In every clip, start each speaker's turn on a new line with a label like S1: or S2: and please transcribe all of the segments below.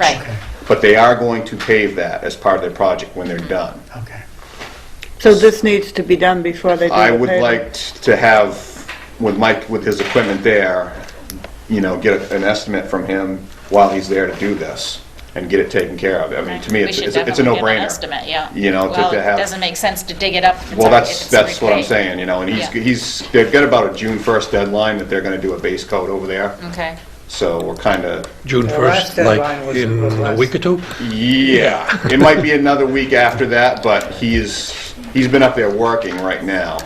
S1: Right.
S2: But they are going to pave that as part of their project when they're done.
S3: Okay.
S4: So this needs to be done before they do the
S2: I would
S4: paving?
S2: like t- to have, with Mike, with his equipment there, you know, get an estimate from him while he's there to do this and get it taken care of. I mean, to me, it's it's it's
S1: We
S2: a
S1: should definitely get an
S2: no-brainer.
S1: estimate, yeah.
S2: you know, to-
S1: Well,
S2: to have-
S1: it doesn't make sense to dig it up. if it's
S2: Well,
S1: a-
S2: that's,
S1: if it's a
S2: that's what I'm
S1: repay.
S2: saying, you know, and he's,
S1: Yeah.
S2: he's, they've got about a June 1st deadline that they're going to do a base coat over there.
S1: Okay.
S2: So we're kind of,
S5: June
S3: The last
S5: 1st, like
S3: deadline was-
S5: in
S3: was
S5: a
S3: last-
S5: week or two?
S2: yeah. It might be another week after that, but he's, he's been up there working right now.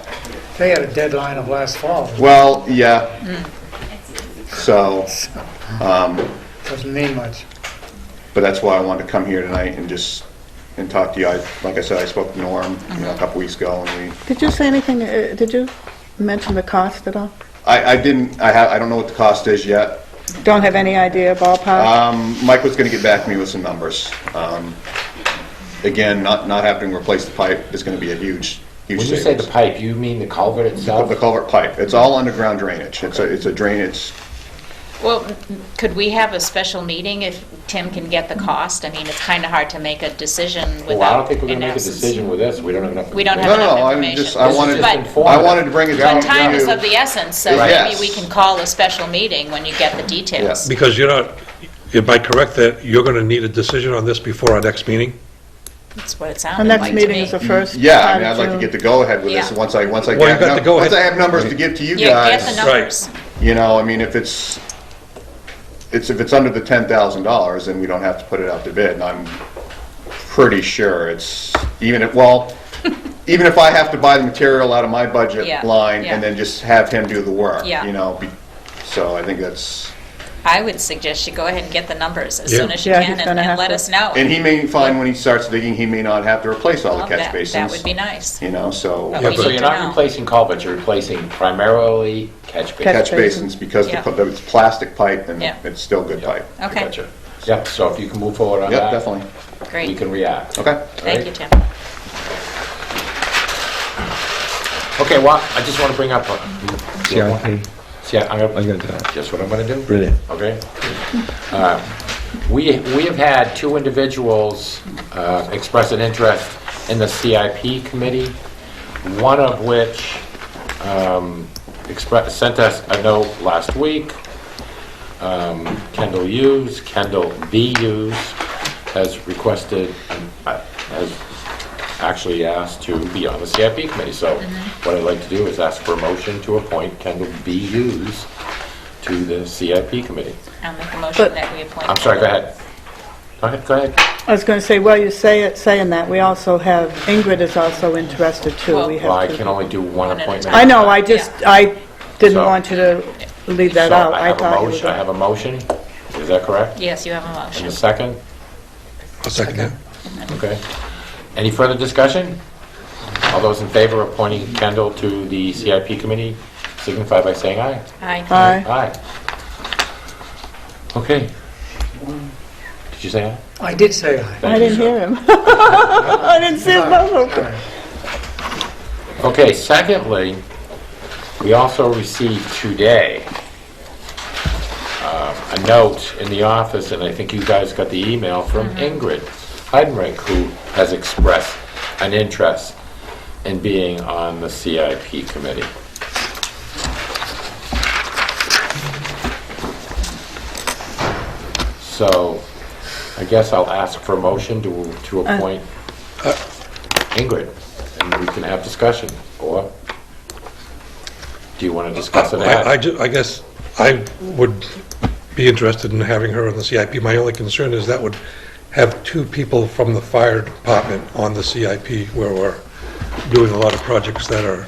S3: They had a deadline of last fall.
S2: Well, yeah.
S1: Mm.
S2: So,
S3: Doesn't mean much.
S2: but that's why I wanted to come here tonight and just, and talk to you. I Like I said, I spoke to Norm, you
S1: Mm-hmm.
S2: know, a couple weeks ago, and we,
S4: Did you say anything, uh, did you mention the cost at all?
S2: I, I didn't, I have, I don't know what the cost is yet.
S4: Don't have any idea ballpark?
S2: Um, Mike was gonna get back to me with some numbers. Um, Again, not, not having to replace the pipe is gonna be a huge, huge
S6: When you say the
S2: savings.
S6: pipe, you mean the culvert
S2: Of The
S6: itself?
S2: culvert pipe, it's all underground drainage. It's a, it's a drain, it's,
S1: Well, m- could we have a special meeting if Tim can get the cost? I mean, it's kind of hard to make a decision
S6: Well, I don't
S1: without
S6: think we're
S1: an
S6: gonna make a
S1: absence.
S6: decision with this, we don't have enough.
S1: We don't
S2: no,
S1: have
S2: no,
S1: enough
S2: I'm just, I
S1: information.
S6: This is
S2: wanted,
S6: just
S1: But
S2: I wanted to bring it down.
S1: but time
S2: to-
S1: is of the essence, so
S2: Right.
S1: maybe we
S2: Yes.
S1: can call a special meeting when you get the details.
S5: Because you're not, am I correct that you're going to need a decision on this before our next meeting?
S1: That's what it
S4: Our
S1: sounded like
S4: next
S1: to
S4: meeting
S1: me.
S4: is the first part of June.
S2: Mm, Yeah, I mean, I'd like to get the go-ahead with this,
S1: Yeah.
S2: once I, once I
S5: Well, you
S2: get,
S5: got the
S2: num-
S5: go-ahead.
S2: once I have numbers to give to you
S1: Yeah, get the
S2: guys,
S1: numbers.
S2: you know, I mean, if it's, it's, if it's under the ten thousand dollars, then we don't have to put it out to bid, and I'm pretty sure it's, even if, well, even if I have to buy the material out of my
S1: Yeah,
S2: budget line,
S1: yeah.
S2: and then just have him do the work,
S1: Yeah.
S2: you know, be- so I think that's,
S1: I would suggest you go ahead and get the numbers as
S5: Yeah.
S1: soon as you
S4: Yeah, he's
S1: can and-
S4: gonna
S1: and
S4: have
S1: let
S4: to.
S1: us know.
S2: and he may find when he starts digging, he may not have to replace all the
S1: Well,
S2: catch
S1: that-
S2: basins.
S1: That would be nice.
S2: You know, so.
S1: But we
S5: but-
S6: So
S1: need
S6: you're
S1: to
S6: not
S1: know.
S6: replacing culverts, you're replacing primarily catch
S4: Catch-
S6: basins.
S2: catch basins because the
S1: Yeah.
S2: co- it's plastic pipe and
S1: Yeah.
S2: it's still good pipe.
S1: Okay.
S6: Gotcha. Yep, so if you can move forward on
S2: Yep,
S6: that.
S2: definitely.
S6: We
S1: Great.
S6: can react.
S2: Okay.
S1: Thank
S6: Alright.
S1: you, Tim.
S6: Okay, well, I just wanna bring up. a-
S7: CIP.
S6: See, I- I'm
S7: I'm
S6: gonna,
S7: gonna do that.
S6: just what I'm gonna do.
S7: Brilliant.
S6: Okay. Uh, We, we have had two individuals uh, express an interest in the CIP committee, one of which um, express, sent us a note last week. Um, Kendall Hughes, Kendall B. Hughes, has requested, uh, has actually asked to be on the CIP committee. So
S4: Mm-hmm.
S6: what I'd like to do is ask for a motion to appoint Kendall B. Hughes to the CIP committee.
S1: I'll make a motion
S4: But-
S1: that we appoint.
S6: I'm sorry, go ahead. Go ahead, go ahead.
S4: I was going to say, well, you say it, saying that, we also have, Ingrid is also interested too.
S1: Well-
S4: We
S6: Well, I
S4: have
S6: can
S4: to.
S6: only do one
S1: at a
S6: appointment.
S4: I know, I just, I didn't
S6: So-
S4: want you to leave that
S6: So
S4: out.
S6: I have a
S4: thought you
S6: motion,
S4: were
S6: I have a motion, is that correct?
S1: Yes, you have a
S6: And a
S1: motion.
S6: second,
S5: A second. yeah.
S6: okay. Any further discussion? All those in favor of appointing Kendall to the CIP committee signify by saying aye.
S1: Aye.
S4: Aye.
S6: Aye. Okay. Did you say aye?
S3: I did say aye.
S4: I
S6: Thank you,
S4: didn't
S6: sir.
S4: hear him. I didn't see him.
S6: Okay, secondly, we also received today um, a note in the office, and I think you guys got the email from Ingrid Heidenreich, who has expressed an interest in being on the CIP committee. So I guess I'll ask for a motion to to appoint Ingrid, and we can have discussion, or do you want to discuss it
S5: I, I
S6: ahead?
S5: ju- I guess I would be interested in having her on the CIP. My only concern is that would have two people from the fire department on the CIP where we're doing a lot of projects that are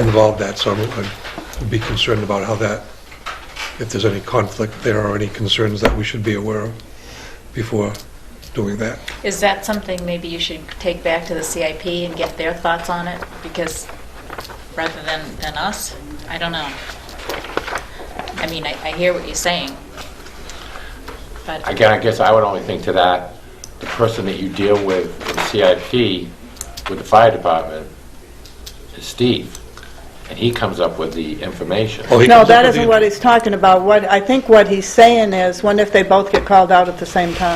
S5: involved that, so I would be concerned about how that, if there's any conflict there or any concerns that we should be aware of before doing that.
S1: Is that something maybe you should take back to the CIP and get their thoughts on it? Because rather than, than us, I don't know. I mean, I, I hear what you're saying. But,
S6: Again, I guess I would only think to that, the person that you deal with in CIP, with the fire department, is Steve. and he comes up with the information.
S5: Oh, he
S4: No,
S5: comes up
S4: that
S5: with the-
S4: isn't what he's talking about. What, I think what he's saying is, what if they both get called out at the same time?